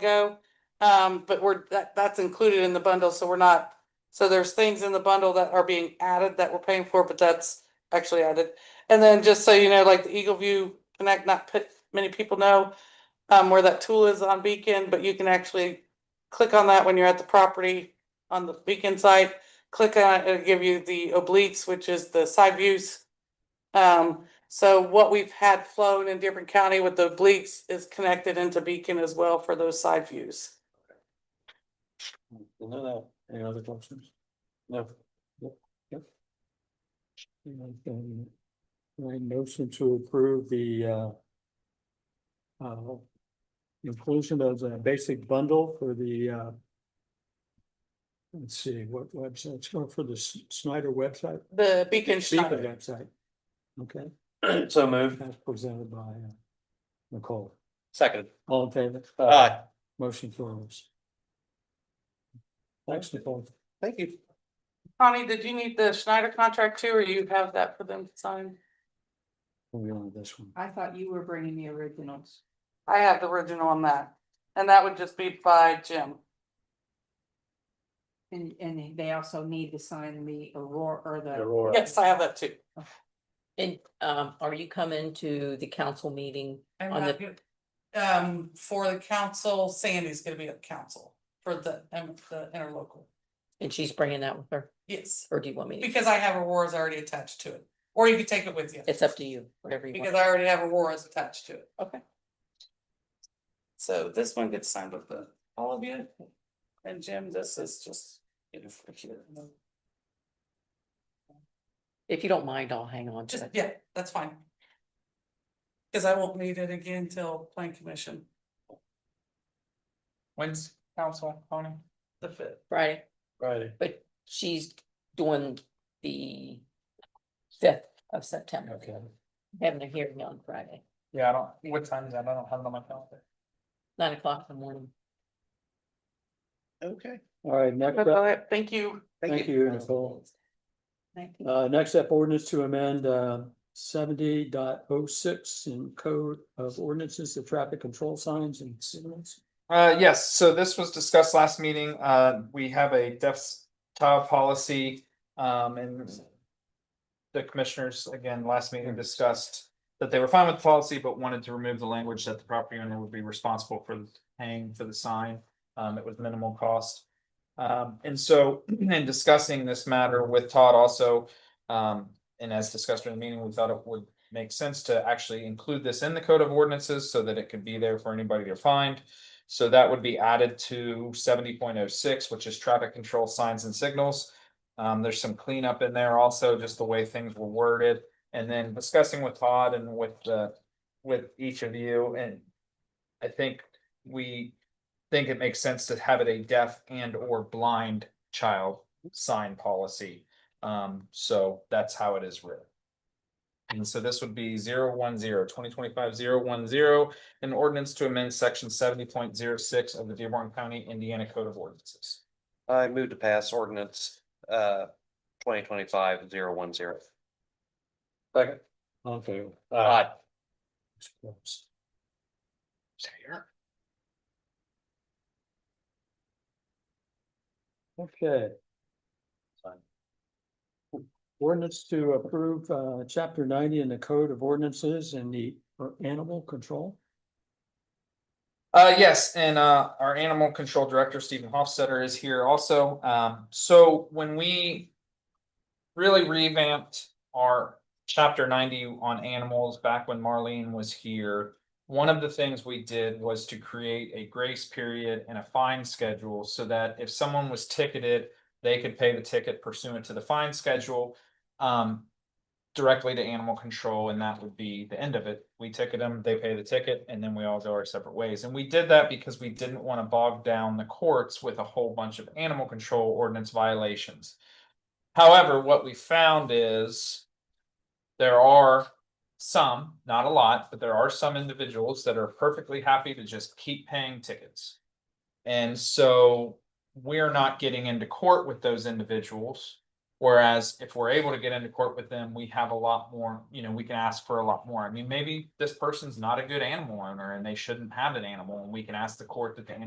ago. Um, but we're, that, that's included in the bundle, so we're not, so there's things in the bundle that are being added that we're paying for, but that's actually added. And then just so you know, like the Eagle View Connect, not put, many people know um, where that tool is on Beacon, but you can actually click on that when you're at the property on the Beacon site. Click on it, it'll give you the obliques, which is the side views. Um, so what we've had flown in different county with the obliques is connected into Beacon as well for those side views. No, no, any other questions? No. Yep, yep. And then, My motion to approve the uh. Uh. Inclusion of the basic bundle for the uh. Let's see, what website, it's going for the S- Snyder website, The Beacon Beacon Schneider, website. Okay, So moved. that's presented by uh, Nicole, Second. all in favor? Aye. Motion carries. Thanks, Nicole. Thank you. Connie, did you need the Schneider contract too, or you have that for them to sign? Moving on to this one. I thought you were bringing the originals. I have the original on that, and that would just be by Jim. And, and they also need to sign the Aurora or the, Aurora. Yes, I have that too. And um, are you coming to the council meeting? I'm On not the- good. Um, for the council, Sandy's gonna be at council for the, um, the interlocal. And she's bringing that with her, Yes, or do you want me? to- because I have Aurora's already attached to it, or you could take it with you. It's up to you, whatever you Because want. I already have Aurora's attached to it. Okay. So this one gets signed with the, all of you. And Jim, this is just. you know, for here. If you don't mind, I'll hang on Just, to it. yeah, that's fine. Cause I won't need it again till plan commission. When's Council, Tony. The fifth. Friday, Friday? but she's doing the fifth of September, Okay. having a hearing on Friday, Yeah, I don't, what time is that? I don't have it on my calendar. nine o'clock in the morning. Okay. All right, next up, Thank you. thank you, Nicole. nineteen- Uh, next up, ordinance to amend, uh, 70.06 in code of ordinances, the traffic control signs and signals. Uh, yes, so this was discussed last meeting. Uh, we have a desktop policy, um, and the commissioners, again, last meeting discussed that they were fine with the policy, but wanted to remove the language that the property owner would be responsible for paying for the sign. Um, it was minimal cost. Um, and so in discussing this matter with Todd also, um, and as discussed during the meeting, we thought it would make sense to actually include this in the code of ordinances so that it could be there for anybody to find. So that would be added to seventy point oh six, which is traffic control signs and signals. Um, there's some cleanup in there also, just the way things were worded, and then discussing with Todd and with uh with each of you, and I think we think it makes sense to have it a deaf and or blind child sign policy. Um, so that's how it is written. And so this would be zero one zero, twenty twenty five zero one zero, an ordinance to amend section seventy point zero six of the Dearborn County, Indiana Code of Ordinances. I move to pass ordinance uh twenty twenty five zero one zero. Second. All in favor? Aye. It's closed. Okay. Ordinance to approve, uh, chapter ninety in the code of ordinances and the for animal control. Uh, yes, and uh, our animal control director, Stephen Hofstetter, is here also. Um, so when we really revamped our chapter ninety on animals back when Marlene was here, one of the things we did was to create a grace period and a fine schedule so that if someone was ticketed, they could pay the ticket pursuant to the fine schedule. Um, directly to animal control and that would be the end of it. We ticket them, they pay the ticket, and then we all go our separate ways. And we did that because we didn't want to bog down the courts with a whole bunch of animal control ordinance violations. However, what we found is there are some, not a lot, but there are some individuals that are perfectly happy to just keep paying tickets. And so we're not getting into court with those individuals. Whereas if we're able to get into court with them, we have a lot more, you know, we can ask for a lot more. I mean, maybe this person's not a good animal owner and they shouldn't have an animal and we can ask the court that the animal